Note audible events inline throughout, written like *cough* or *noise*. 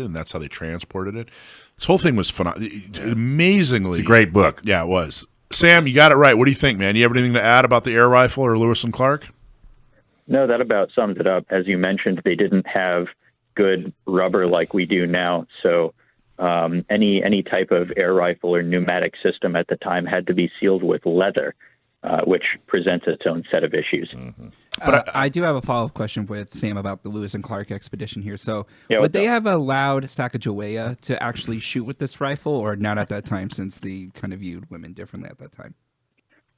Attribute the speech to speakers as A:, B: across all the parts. A: and that's how they transported it. This whole thing was phenomenal, amazingly
B: It's a great book.
A: Yeah, it was. Sam, you got it right. What do you think, man? You have anything to add about the air rifle or Lewis and Clark?
C: No, that about sums it up. As you mentioned, they didn't have good rubber like we do now. So um, any any type of air rifle or pneumatic system at the time had to be sealed with leather, uh, which presents its own set of issues.
D: But Uh, I, do have a follow up question with Sam about the Lewis and Clark expedition here. So,
C: Yeah,
D: would
C: what's
D: they
C: up?
D: have allowed Sacagawea to actually shoot with this rifle, or not at that time, since they kind of viewed women differently at that time?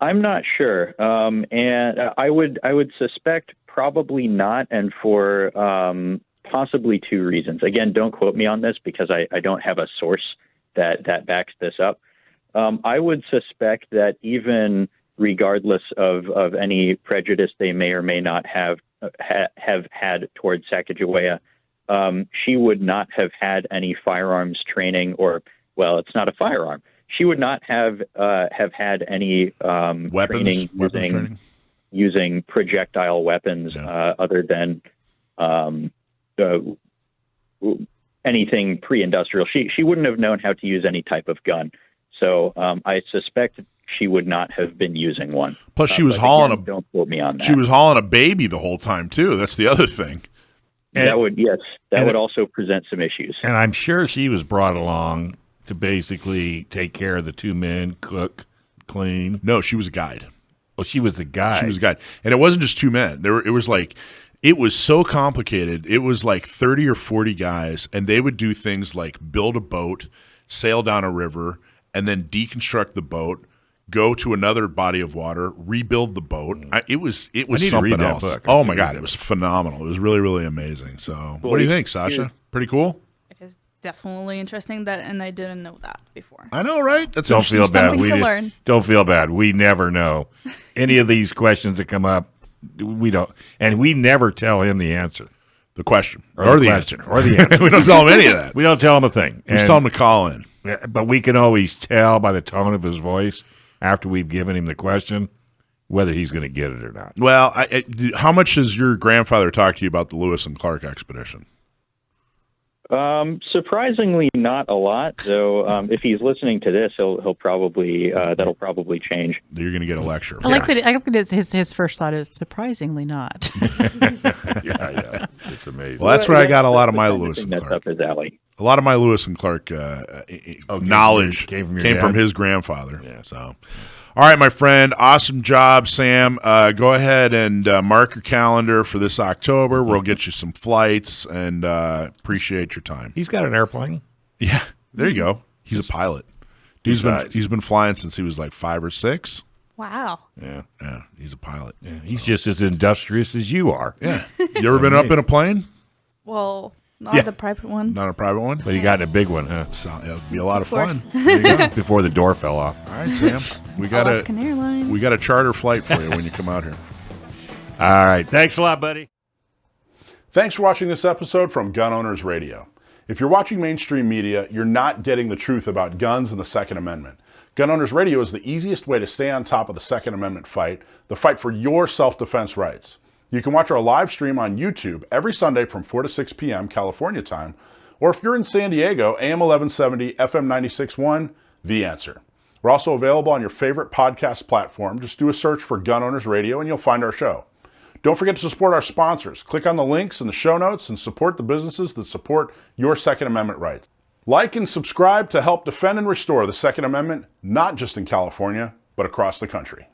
C: I'm not sure, um, and uh, I would I would suspect probably not, and for um, possibly two reasons. Again, don't quote me on this because I, I don't have a source that that backs this up. Um, I would suspect that even regardless of, of any prejudice they may or may not have uh, ha, have had towards Sacagawea, um, she would not have had any firearms training, or well, it's not a firearm. She would not have uh, have had any um,
A: Weapons,
C: training
A: weapons
C: using
A: training.
C: using projectile weapons
A: Yeah.
C: uh, other than um, uh, w- anything pre-industrial. She she wouldn't have known how to use any type of gun. So um, I suspect she would not have been using one.
A: Plus, she
C: Uh,
A: was
C: but
A: hauling
C: again,
A: a
C: Don't quote me on that.
A: she was hauling a baby the whole time too. That's the other thing.
C: that would yes. That
B: and-
C: would also present some issues.
B: And I'm sure she was brought along to basically take care of the two men, cook, clean.
A: No, she was a guide.
B: Well, she was the guy.
A: She was a guide, and it wasn't just two men. There, were, it was like it was so complicated. It was like thirty or forty guys, and they would do things like build a boat, sail down a river, and then deconstruct the boat. Go to another body of water, rebuild the boat. I, it was it was
B: need to read
A: something
B: that
A: else.
B: book. Mm. I
A: Oh
B: need
A: my
B: to read
A: god,
B: that
A: it was phenomenal. It was really really amazing. So, what do you think, Sasha? Pretty cool.
E: It is definitely interesting that, and I didn't know that before.
A: I know, right? That's
B: don't feel
A: interesting
B: bad.
E: Something
B: We
E: to
B: di-
E: learn.
B: don't feel bad. We never know any of these questions that come up. We don't, and we never tell him the answer
A: stuff. The question or, the
B: question,
A: answer.
B: or
A: *laughs*
B: the answer.
A: we don't tell him any of
B: *laughs*
A: that.
B: we don't tell him a thing.
A: We just
B: And-
A: tell him to call in.
B: Yeah, but we can always tell by the tone of his voice after we've given him the question whether he's going to get it or not.
A: Well, I, I- d- how much does your grandfather talk to you about the Lewis and Clark expedition?
C: Um, surprisingly, not a lot. Though, um, if he's listening to this, he'll he'll probably uh, that'll probably change.
A: You're going to get a lecture.
F: I like that. I like that his- his his first thought is surprisingly not.
B: Yeah, yeah, *laughs* it's amazing.
A: Well, that's where I got a lot of
C: The
A: my
C: kind of
A: Lewis
C: thing
A: and
C: uh, that's
A: Clark.
C: up his alley.
A: A lot of my Lewis and Clark uh, uh,
B: Oh, came from
A: knowledge
B: your- came from your
A: came from
B: dad?
A: his grandfather.
B: Yeah.
A: So, all right, my friend, awesome job, Sam. Uh, go ahead and uh, mark your calendar for this October. We'll get you some flights and uh, appreciate your time.
B: He's got an airplane.
A: Yeah, there you go. He's a pilot. Dude's been
B: Nice.
A: he's been flying since he was like five or six.
E: Wow.
B: Yeah,
A: Yeah, he's a pilot.
B: yeah. He's just as industrious as you are,
A: *laughs* Yeah, you ever been up in a plane?
E: Well, not
B: Yeah.
E: the private one.
A: Not a private one.
B: but he got in a big one, huh?
A: So it'll be a lot of,
E: course.
A: fun. There you go.
B: Before the door fell off.
A: All right, *laughs* Sam. We got
E: Alaskan
A: a
E: Airlines.
A: we got a charter flight for you when you come out here.
B: All right, thanks a lot, buddy.
A: Thanks for watching this episode from Gun Owners Radio. If you're watching mainstream media, you're not getting the truth about guns and the Second Amendment. Gun Owners Radio is the easiest way to stay on top of the Second Amendment fight, the fight for your self defense rights. You can watch our live stream on YouTube every Sunday from 4 to 6 p.m. California time, or if you're in San Diego, AM 1170, FM 961, The Answer. We're also available on your favorite podcast platform. Just do a search for Gun Owners Radio and you'll find our show. Don't forget to support our sponsors. Click on the links in the show notes and support the businesses that support your Second Amendment rights. Like and subscribe to help defend and restore the Second Amendment, not just in California, but across the country.